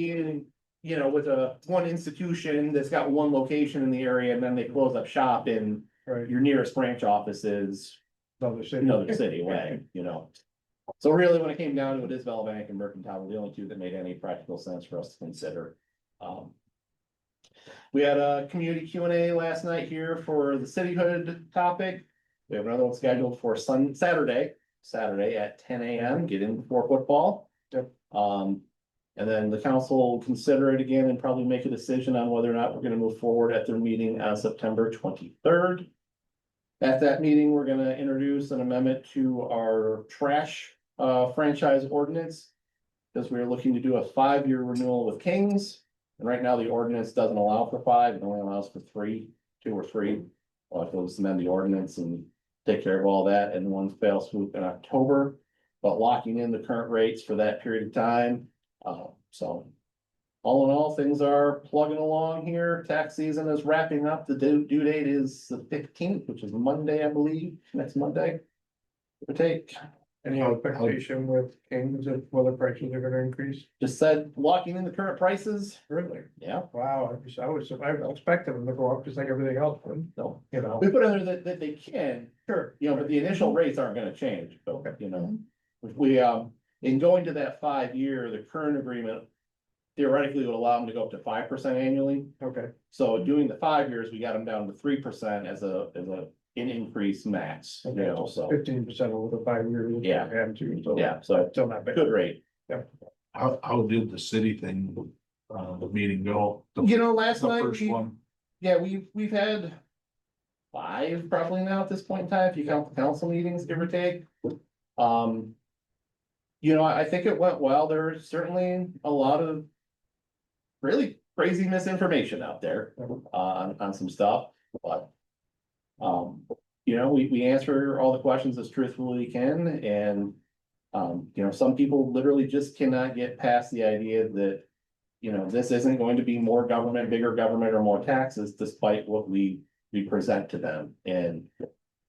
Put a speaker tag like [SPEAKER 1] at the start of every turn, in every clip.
[SPEAKER 1] being, you know, with a one institution that's got one location in the area and then they close up shop in
[SPEAKER 2] Right,
[SPEAKER 1] your nearest branch office is
[SPEAKER 2] another city.
[SPEAKER 1] another city away, you know? So really, when it came down to it, Isabella Bank and Mercantile were the only two that made any practical sense for us to consider. Um, We had a community Q and A last night here for the cityhood topic. We have another one scheduled for Sun, Saturday, Saturday at ten AM, get in before football.
[SPEAKER 2] Yep.
[SPEAKER 1] Um, and then the council will consider it again and probably make a decision on whether or not we're gonna move forward at their meeting on September twenty-third. At that meeting, we're gonna introduce an amendment to our trash uh franchise ordinance. Because we're looking to do a five-year renewal with Kings, and right now the ordinance doesn't allow for five, it only allows for three, two or three. Well, if they'll just amend the ordinance and take care of all that in one fell swoop in October. But locking in the current rates for that period of time, uh, so. All in all, things are plugging along here. Tax season is wrapping up. The due, due date is the fifteenth, which is Monday, I believe, next Monday. Give or take,
[SPEAKER 2] Any expectation with Kings of whether prices are gonna increase?
[SPEAKER 1] just said locking in the current prices,
[SPEAKER 2] Really?
[SPEAKER 1] yeah,
[SPEAKER 2] Wow, I was, I was, I expected them to go up just like everything else would,
[SPEAKER 1] so.
[SPEAKER 2] you know?
[SPEAKER 1] We put in there that, that they can,
[SPEAKER 2] Sure.
[SPEAKER 1] you know, but the initial rates aren't gonna change, but,
[SPEAKER 2] Okay.
[SPEAKER 1] you know. We- We, um, in going to that five year, the current agreement theoretically would allow them to go up to five percent annually.
[SPEAKER 2] Okay,
[SPEAKER 1] So doing the five years, we got them down to three percent as a, as a, an increase max, you
[SPEAKER 2] Okay.
[SPEAKER 1] know, so,
[SPEAKER 2] fifteen percent over the five years.
[SPEAKER 1] Yeah.
[SPEAKER 2] And two, so.
[SPEAKER 1] yeah, so
[SPEAKER 2] Still not bad.
[SPEAKER 1] good rate.
[SPEAKER 3] How, how did the city thing, uh, the meeting go? The
[SPEAKER 1] You know, last
[SPEAKER 3] the
[SPEAKER 1] night,
[SPEAKER 3] first
[SPEAKER 1] we-
[SPEAKER 3] one,
[SPEAKER 1] yeah, we've, we've had five probably now at this point in time, if you count the council meetings, give or take. Um, you know, I I think it went well. There's certainly a lot of really crazy misinformation out there uh, on, on some stuff, but um, you know, we, we answer all the questions as truthfully we can and um, you know, some people literally just cannot get past the idea that you know, this isn't going to be more government, bigger government or more taxes despite what we, we present to them and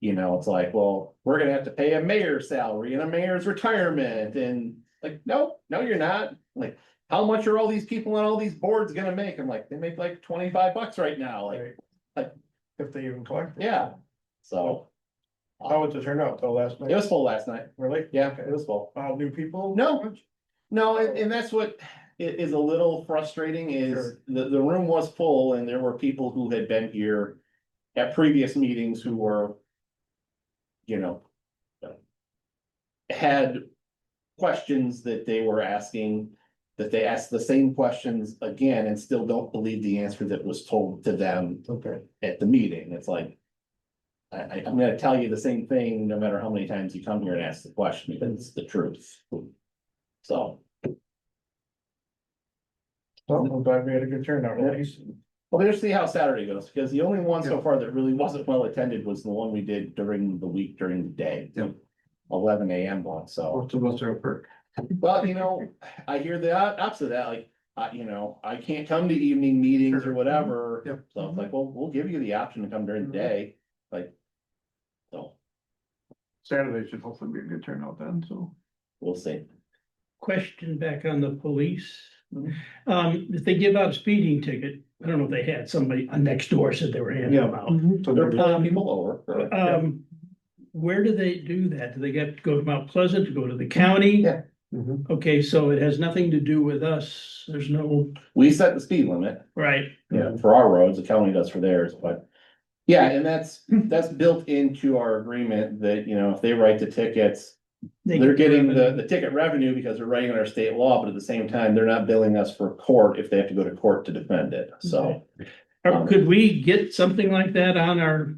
[SPEAKER 1] you know, it's like, well, we're gonna have to pay a mayor's salary and a mayor's retirement and like, no, no, you're not. Like, how much are all these people on all these boards gonna make? I'm like, they make like twenty-five bucks right now, like,
[SPEAKER 2] Right. If they even collect. it.
[SPEAKER 1] yeah, so.
[SPEAKER 2] How was the turnout though last
[SPEAKER 1] It
[SPEAKER 2] night?
[SPEAKER 1] was full last night.
[SPEAKER 2] Really?
[SPEAKER 1] Yeah, it was full.
[SPEAKER 2] Uh, new people?
[SPEAKER 1] No. No, and, and that's what i- is a little frustrating is
[SPEAKER 2] Sure.
[SPEAKER 1] the, the room was full and there were people who had been here at previous meetings who were, you know, had questions that they were asking, that they asked the same questions again and still don't believe the answer that was told to them
[SPEAKER 2] Okay,
[SPEAKER 1] at the meeting, it's like. I, I, am gonna tell you the same thing, no matter how many times you come here and ask the question, because it's the truth. So,
[SPEAKER 2] well, I'm glad we had a good turnout, at least.
[SPEAKER 1] well, we'll see how Saturday goes, because the only one so
[SPEAKER 2] Yeah.
[SPEAKER 1] far that really wasn't well attended was the one we did during the week, during the day.
[SPEAKER 3] Yeah.
[SPEAKER 1] Eleven AM one, so,
[SPEAKER 2] Most of us are a perk.
[SPEAKER 1] well, you know, I hear the op- opposite of that, like, I, you know, I can't come to evening meetings or
[SPEAKER 2] Sure. Mm-hmm.
[SPEAKER 1] whatever.
[SPEAKER 2] Yep.
[SPEAKER 1] So it's like, well, we'll give you the option to come during the
[SPEAKER 2] Mhm.
[SPEAKER 1] day, like, so,
[SPEAKER 2] Saturday should hopefully be a good turnout then, so.
[SPEAKER 1] we'll see.
[SPEAKER 4] question back on the police.
[SPEAKER 2] Mhm.
[SPEAKER 4] Um, if they give out a speeding ticket, I don't know if they had somebody uh, next door said they were handing them out.
[SPEAKER 2] So
[SPEAKER 1] They're
[SPEAKER 2] they're-
[SPEAKER 1] pulling people over. or-
[SPEAKER 2] Uh,
[SPEAKER 4] Um, where do they do that? Do they get, to go to Mount Pleasant, to go to the county?
[SPEAKER 1] Yeah.
[SPEAKER 2] Mhm.
[SPEAKER 1] Mm-hmm.
[SPEAKER 4] Okay, so it has nothing to do with us. There's no,
[SPEAKER 1] We set the speed limit,
[SPEAKER 4] right,
[SPEAKER 1] yeah, for our roads, the county does for theirs, but. Yeah, and that's, that's built into our agreement that, you know, if they write the tickets,
[SPEAKER 4] They
[SPEAKER 1] they're getting the, the ticket revenue because they're writing under state law, but at the same time, they're not billing us for court if they have to go to court to defend it, so.
[SPEAKER 4] Or could we get something like that on our,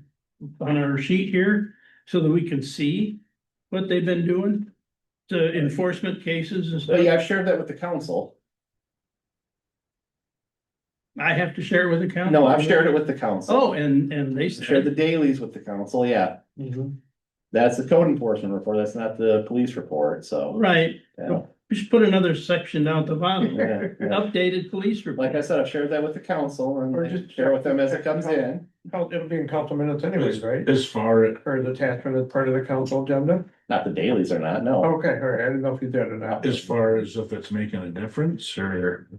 [SPEAKER 4] on our sheet here so that we can see what they've been doing? To enforcement cases and
[SPEAKER 1] So,
[SPEAKER 4] stuff.
[SPEAKER 1] yeah, I've shared that with the council.
[SPEAKER 4] I have to share it with the county.
[SPEAKER 1] No, I've shared it with the council.
[SPEAKER 4] Oh, and, and they
[SPEAKER 1] Shared the
[SPEAKER 4] said,
[SPEAKER 1] dailies with the council, yeah.
[SPEAKER 2] Mm-hmm.
[SPEAKER 1] That's the code enforcement report, that's not the police report, so.
[SPEAKER 4] right,
[SPEAKER 1] yeah,
[SPEAKER 4] we should put another section down at the bottom,
[SPEAKER 1] yeah, yeah.
[SPEAKER 4] updated police report.
[SPEAKER 1] Like I said, I've shared that with the council
[SPEAKER 2] Or
[SPEAKER 1] and
[SPEAKER 2] just-
[SPEAKER 1] share with them as it comes in.
[SPEAKER 2] Oh, It'll be in council minutes anyways, right?
[SPEAKER 3] As far as,
[SPEAKER 2] Or the attachment as part of the council agenda?
[SPEAKER 1] Not the dailies are not, no.
[SPEAKER 2] Okay, all right, I didn't know if you did or not.
[SPEAKER 3] as far as if it's making a difference or